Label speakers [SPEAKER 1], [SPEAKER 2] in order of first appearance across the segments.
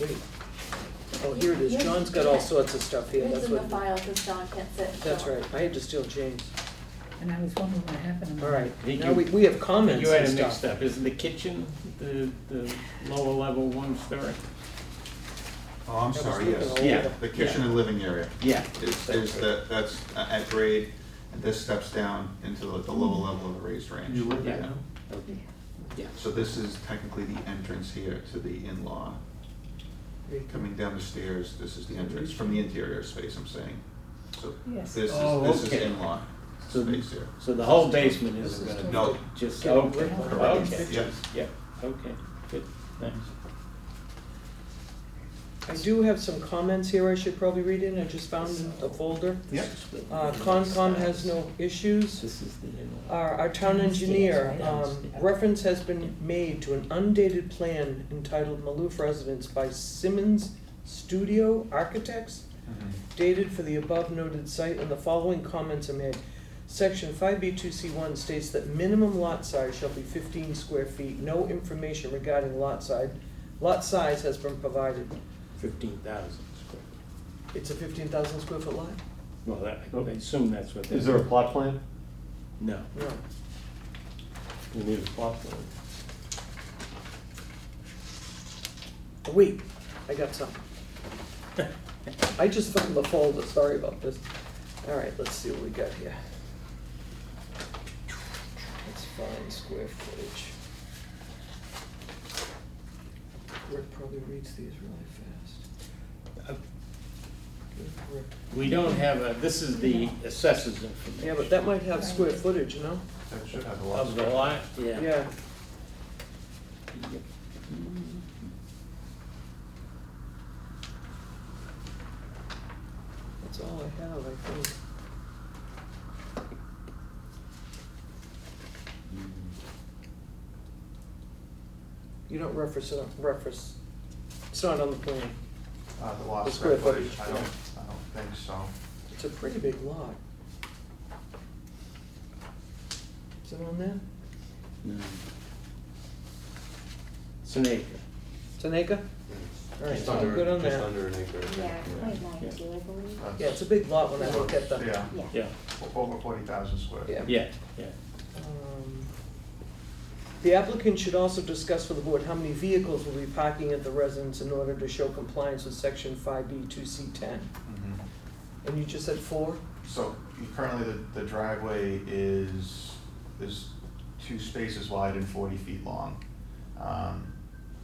[SPEAKER 1] Wait. Oh, here it is. John's got all sorts of stuff here.
[SPEAKER 2] It's
[SPEAKER 1] That's
[SPEAKER 2] in the
[SPEAKER 1] what,
[SPEAKER 2] file, because John can't sit. so-
[SPEAKER 1] that's right. I had to steal James.
[SPEAKER 3] Mm-hmm.
[SPEAKER 4] And I was wondering what happened.
[SPEAKER 1] All right.
[SPEAKER 3] I think
[SPEAKER 1] Now
[SPEAKER 3] you-
[SPEAKER 1] we, we have comments
[SPEAKER 3] You had
[SPEAKER 1] and
[SPEAKER 3] a mixed
[SPEAKER 1] stuff.
[SPEAKER 3] up, isn't the kitchen the, the lower level one story?
[SPEAKER 5] Oh, I'm
[SPEAKER 1] That was
[SPEAKER 5] sorry,
[SPEAKER 1] the-
[SPEAKER 5] yes.
[SPEAKER 1] the-
[SPEAKER 3] Yeah.
[SPEAKER 5] The kitchen and living area
[SPEAKER 3] Yeah.
[SPEAKER 5] is, is that, that's at grade, and this steps down into the, the lower level of the raised range.
[SPEAKER 3] You live there
[SPEAKER 5] Yeah.
[SPEAKER 3] now? Yeah.
[SPEAKER 5] So this is technically the entrance here to the in-law. Coming down the stairs, this is the entrance from the interior space, I'm saying. So
[SPEAKER 4] Yes.
[SPEAKER 5] this is,
[SPEAKER 3] Oh,
[SPEAKER 5] this is
[SPEAKER 3] okay.
[SPEAKER 5] in-law
[SPEAKER 3] So,
[SPEAKER 5] space here.
[SPEAKER 3] so the whole basement isn't
[SPEAKER 1] This is
[SPEAKER 3] gonna
[SPEAKER 5] No,
[SPEAKER 3] be just,
[SPEAKER 1] Yeah,
[SPEAKER 3] okay,
[SPEAKER 1] we're-
[SPEAKER 5] correct,
[SPEAKER 3] okay,
[SPEAKER 5] yes.
[SPEAKER 3] yeah, okay, good, thanks.
[SPEAKER 1] I do have some comments here I should probably read in. I just found a folder.
[SPEAKER 5] Yep.
[SPEAKER 1] Uh, Concom has no issues.
[SPEAKER 3] This is the in-law.
[SPEAKER 1] Our, our town engineer, um, reference has been made to an undated plan entitled Maloof Residence by Simmons Studio Architects,
[SPEAKER 3] Mm-hmm,
[SPEAKER 1] dated for the above noted site, and the following comments are made. Section five B two C one states that minimum lot size shall be fifteen square feet, no information regarding lot size, lot size has been provided.
[SPEAKER 3] Fifteen thousand square. feet.
[SPEAKER 1] It's a fifteen thousand square foot lot?
[SPEAKER 3] Well, that,
[SPEAKER 1] Oh.
[SPEAKER 3] I assume that's what.
[SPEAKER 6] Is
[SPEAKER 3] that-
[SPEAKER 6] there a plot plan?
[SPEAKER 3] No,
[SPEAKER 1] No,
[SPEAKER 6] You need a plot plan.
[SPEAKER 1] wait, I got something. I just found the folder, sorry about this. All right, let's see what we got here. Let's find square footage. Rick probably reads these really fast.
[SPEAKER 3] Uh,
[SPEAKER 1] Good Rick.
[SPEAKER 3] we don't have a, this is the assessors information.
[SPEAKER 1] Yeah, but that might have square footage, you know?
[SPEAKER 5] That should have a lot.
[SPEAKER 3] Of the lot, yeah.
[SPEAKER 1] Yeah, that's all I have, I think. You don't reference, it- reference, it's not on the plan.
[SPEAKER 7] Uh, the
[SPEAKER 1] The
[SPEAKER 7] lost
[SPEAKER 1] square
[SPEAKER 7] square footage,
[SPEAKER 1] footage,
[SPEAKER 7] I don't, I don't think so.
[SPEAKER 1] It's a pretty big lot. Is it on there?
[SPEAKER 3] No. It's an acre.
[SPEAKER 1] It's an acre? All right,
[SPEAKER 6] Just
[SPEAKER 1] so I'm
[SPEAKER 6] under-
[SPEAKER 1] good on
[SPEAKER 6] Just
[SPEAKER 1] that.
[SPEAKER 6] under an acre. I
[SPEAKER 2] Yeah,
[SPEAKER 6] think.
[SPEAKER 2] point nine two, I believe.
[SPEAKER 7] That's-
[SPEAKER 1] Yeah, it's a big lot when I look at the.
[SPEAKER 7] Yeah,
[SPEAKER 3] Yeah,
[SPEAKER 7] o- over forty thousand square.
[SPEAKER 1] Yeah.
[SPEAKER 3] yeah, yeah.
[SPEAKER 1] Um, The applicant should also discuss for the board how many vehicles will be parking at the residence in order to show compliance with section five B two C ten.
[SPEAKER 7] Mhm.
[SPEAKER 3] mm-hmm.
[SPEAKER 1] And you just said four?
[SPEAKER 7] So you- currently, the, the driveway is, is two spaces wide and forty feet long. Um,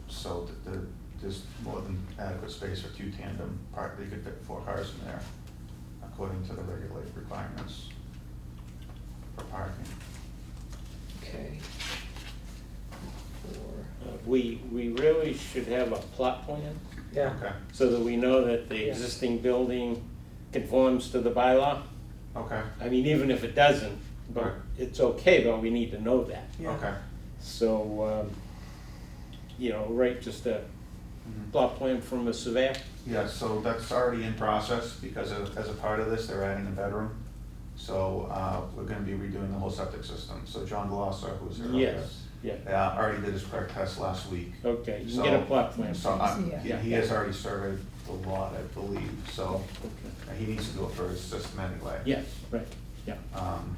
[SPEAKER 7] So th- the, there's more than adequate space for two tandem, part, you could fit four cars in there, according to the regulated requirements for parking.
[SPEAKER 1] Okay. Four,
[SPEAKER 3] Uh, We, we really should have a plot plan
[SPEAKER 1] yeah,
[SPEAKER 7] Okay,
[SPEAKER 3] so that we know that the
[SPEAKER 1] Yeah.
[SPEAKER 3] existing building conforms to the bylaw.
[SPEAKER 7] okay,
[SPEAKER 3] I mean, even if it doesn't, but
[SPEAKER 7] Right.
[SPEAKER 3] it's okay, but we need to know that.
[SPEAKER 1] yeah.
[SPEAKER 7] okay.
[SPEAKER 3] So, um, you know, right, just a
[SPEAKER 7] Mhm.
[SPEAKER 3] plot plan from a surveyor?
[SPEAKER 7] Yeah, so that's already in process because of- as a part of this, they're adding a bedroom. So uh, we're gonna be redoing the whole septic system. So John Glosser, who's here.
[SPEAKER 3] Yes, Oh. yeah,
[SPEAKER 7] uh, Already did his perk test last week.
[SPEAKER 3] okay, you can get a
[SPEAKER 7] So-
[SPEAKER 3] plot plan.
[SPEAKER 7] So
[SPEAKER 3] from-
[SPEAKER 7] I-
[SPEAKER 4] Yeah.
[SPEAKER 7] he he has already surveyed the lot, I believe, so
[SPEAKER 3] Okay.
[SPEAKER 7] he needs to do it for his system anyway.
[SPEAKER 3] Yes, right, yeah,
[SPEAKER 7] Um,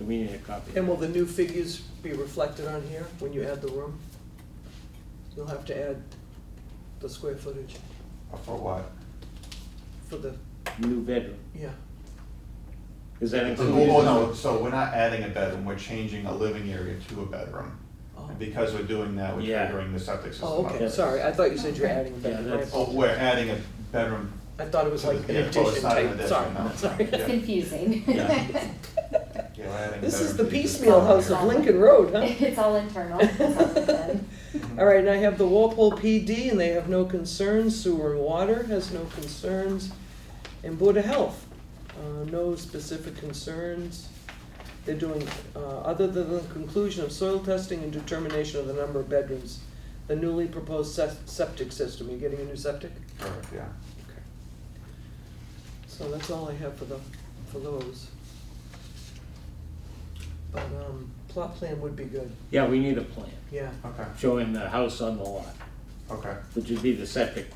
[SPEAKER 3] we need a copy.
[SPEAKER 1] And will the new figures be reflected on here when you add the room? You'll have to add the square footage
[SPEAKER 7] For what?
[SPEAKER 1] for the,
[SPEAKER 3] New bedroom,
[SPEAKER 1] yeah,
[SPEAKER 3] is that included?
[SPEAKER 7] Oh, no, so we're not adding a bedroom, we're changing a living area to a bedroom.
[SPEAKER 1] oh,
[SPEAKER 7] And because we're doing that, we're
[SPEAKER 3] Yeah.
[SPEAKER 7] triggering the septic system.
[SPEAKER 1] oh,
[SPEAKER 7] up.
[SPEAKER 1] okay, sorry, I thought you said you were adding
[SPEAKER 3] Yeah,
[SPEAKER 1] that,
[SPEAKER 3] that's-
[SPEAKER 7] Oh, we're adding a bedroom
[SPEAKER 1] I thought it was like an
[SPEAKER 7] Yeah, well,
[SPEAKER 1] addition
[SPEAKER 7] it's not an
[SPEAKER 1] type,
[SPEAKER 7] addition,
[SPEAKER 1] sorry,
[SPEAKER 7] no.
[SPEAKER 1] sorry.
[SPEAKER 7] Yeah.
[SPEAKER 2] It's confusing.
[SPEAKER 3] Yeah.
[SPEAKER 7] Yeah, we're adding
[SPEAKER 1] This is the
[SPEAKER 7] better
[SPEAKER 1] piecemeal house of Lincoln Road, huh?
[SPEAKER 2] It's all internal, it's all within.
[SPEAKER 1] All right, and I have the Walpole PD, and they have no concerns, sewer and water has no concerns, and Board of Health, uh, no specific concerns. They're doing, uh, other than the conclusion of soil testing and determination of the number of bedrooms, the newly proposed se- septic system, you getting a new septic?
[SPEAKER 7] Correct, yeah.
[SPEAKER 1] Okay. So that's all I have for the, for those. But, um, plot plan would be good,
[SPEAKER 3] Yeah, we need a plan,
[SPEAKER 1] yeah.
[SPEAKER 7] Okay,
[SPEAKER 3] showing the house on the lot,
[SPEAKER 7] okay.
[SPEAKER 3] which would be the septic